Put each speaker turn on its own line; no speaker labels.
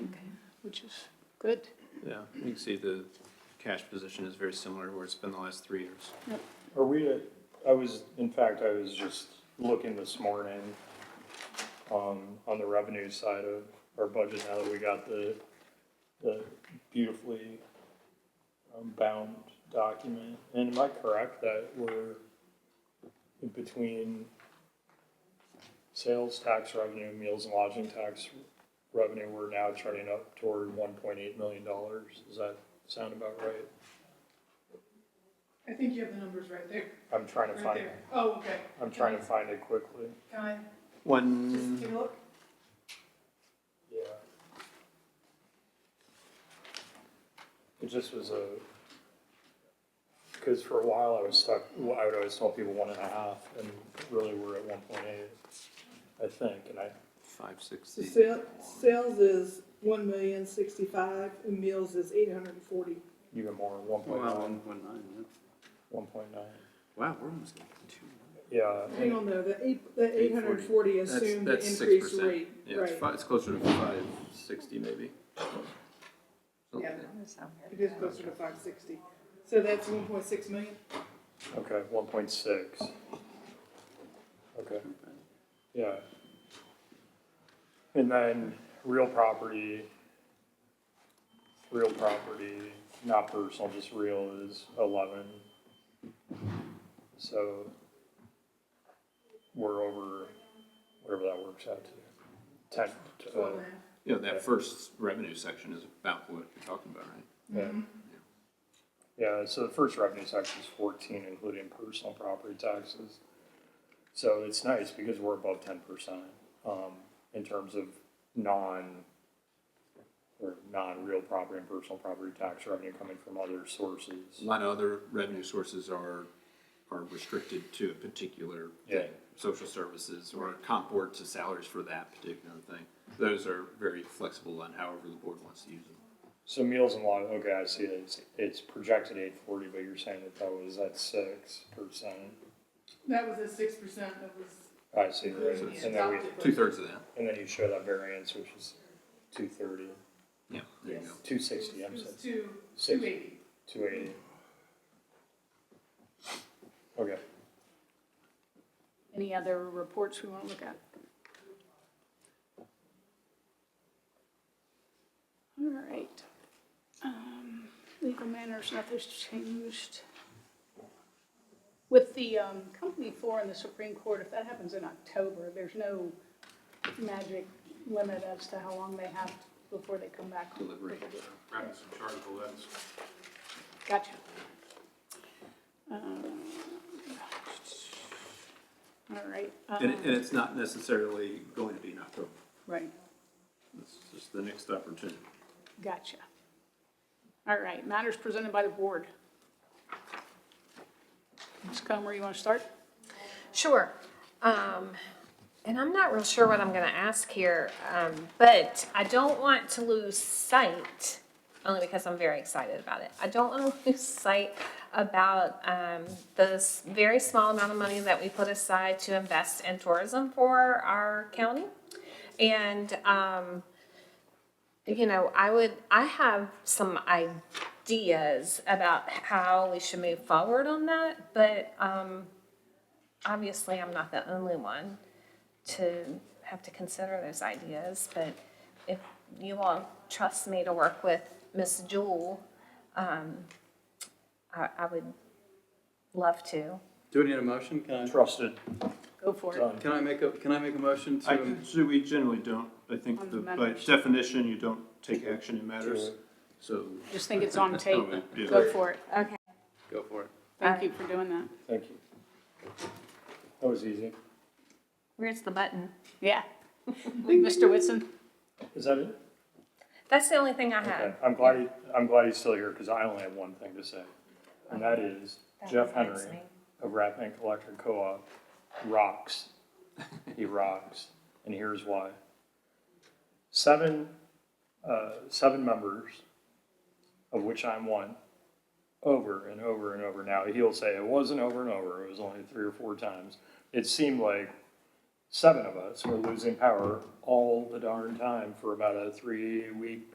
which is good.
Yeah, you can see the cash position is very similar to where it's been the last three years.
Are we, at- I was, in fact, I was just looking this morning, um, on the revenue side of our budget now that we got the, the beautifully um, bound document. And am I correct that we're in between sales tax revenue, meals and lodging tax revenue, we're now turning up toward one point eight million dollars? Does that sound about right?
I think you have the numbers right there,
I'm trying to
right
find,
there. Oh, okay.
I'm trying to find it quickly.
Can I just
One,
take a look?
Yeah. It just was a, because for a while I was stuck, well, I would always tell people one and a half, and really we're at one point eight, I think, and I,
five
So
sixty,
sale, sales is one million sixty-five and meals is eight hundred and forty.
even more, one point
Wow,
um,
nine,
one point nine, yeah.
one point nine.
Wow, we're almost at two.
Yeah,
Hang on though, the eight, the eight hundred and forty assumed the
That's- that's
increased
6%.
rate,
yeah, it's
right?
fi- it's closer to five sixty maybe.
Yeah, It is closer to five sixty. So that's one point six million?
okay, one point six. Okay. Yeah. And then real property, real property, not personal, just real is eleven. So we're over, whatever that works out to, ten, uh,
Twelve and a half.
You know, that first revenue section is about what you're talking about, right?
yeah.
Mm-hmm.
Yeah, so the first revenue tax is fourteen, including personal property taxes. So it's nice because we're above ten percent, um, in terms of non, or non-real property and personal property tax revenue coming from other
A
sources.
lot of other revenue sources are, are restricted to a particular thing.
Yeah.
Social services or a comp board to salaries for that particular thing. Those are very flexible on however the board wants to use them.
So meals and lodging, okay, I see, it's, it's projected eight forty, but you're saying that that was at six percent.
That was at six percent, that was
I see, right,
including
and
the
then we,
adopted.
Two thirds of that,
and then you show that variance, which is two thirty,
yeah, there you
Yes.
go.
two sixty,
It
I'm sorry,
was two,
Six.
two eighty.
two eighty. Okay.
Any other reports we want to look at? All right. Um, Legal matters, nothing's changed. With the um, company four in the Supreme Court, if that happens in October, there's no magic limit as to how long they have before they come back.
Delivery.
Grab some chargeable letters.
Gotcha. Um, All right.
And, it-
um,
and it's not necessarily going to be in October.
Right.
It's just the next opportunity.
Gotcha. All right, matters presented by the board. Ms. Comer, you want to start?
Sure. Um, and I'm not real sure what I'm going to ask here, um, but I don't want to lose sight, only because I'm very excited about it. I don't want to lose sight about um, the s- very small amount of money that we put aside to invest in tourism for our county. And um, you know, I would, I have some ideas about how we should move forward on that, but um, obviously I'm not the only one to have to consider those ideas, but if you all trust me to work with Miss Jewel, um, I, I would love to.
Do we need a motion? Can I,
Trusted.
Go for it.
Done.
can I make a, can I make a motion
I,
to?
so we generally don't, I think
On
the- by
matters.
definition, you don't take action in matters, so.
Just think it's on tape.
Yeah.
Go for it.
Okay.
Go for it.
Thank you for doing that.
Thank you. That was easy.
Where's the button?
Yeah. Mr. Whitson?
Is that it?
That's the only thing I
Okay.
have.
I'm glad, he- I'm glad he's still here because I only have one thing to say. And that is Jeff
That reminds
Henry
me.
of Rat Bank Electric Co-op rocks. He rocks. And here's why. Seven, uh, seven members, of which I'm one, over and over and over. Now, he'll say it wasn't over and over, it was only three or four times. It seemed like seven of us were losing power all the darn time for about a three-week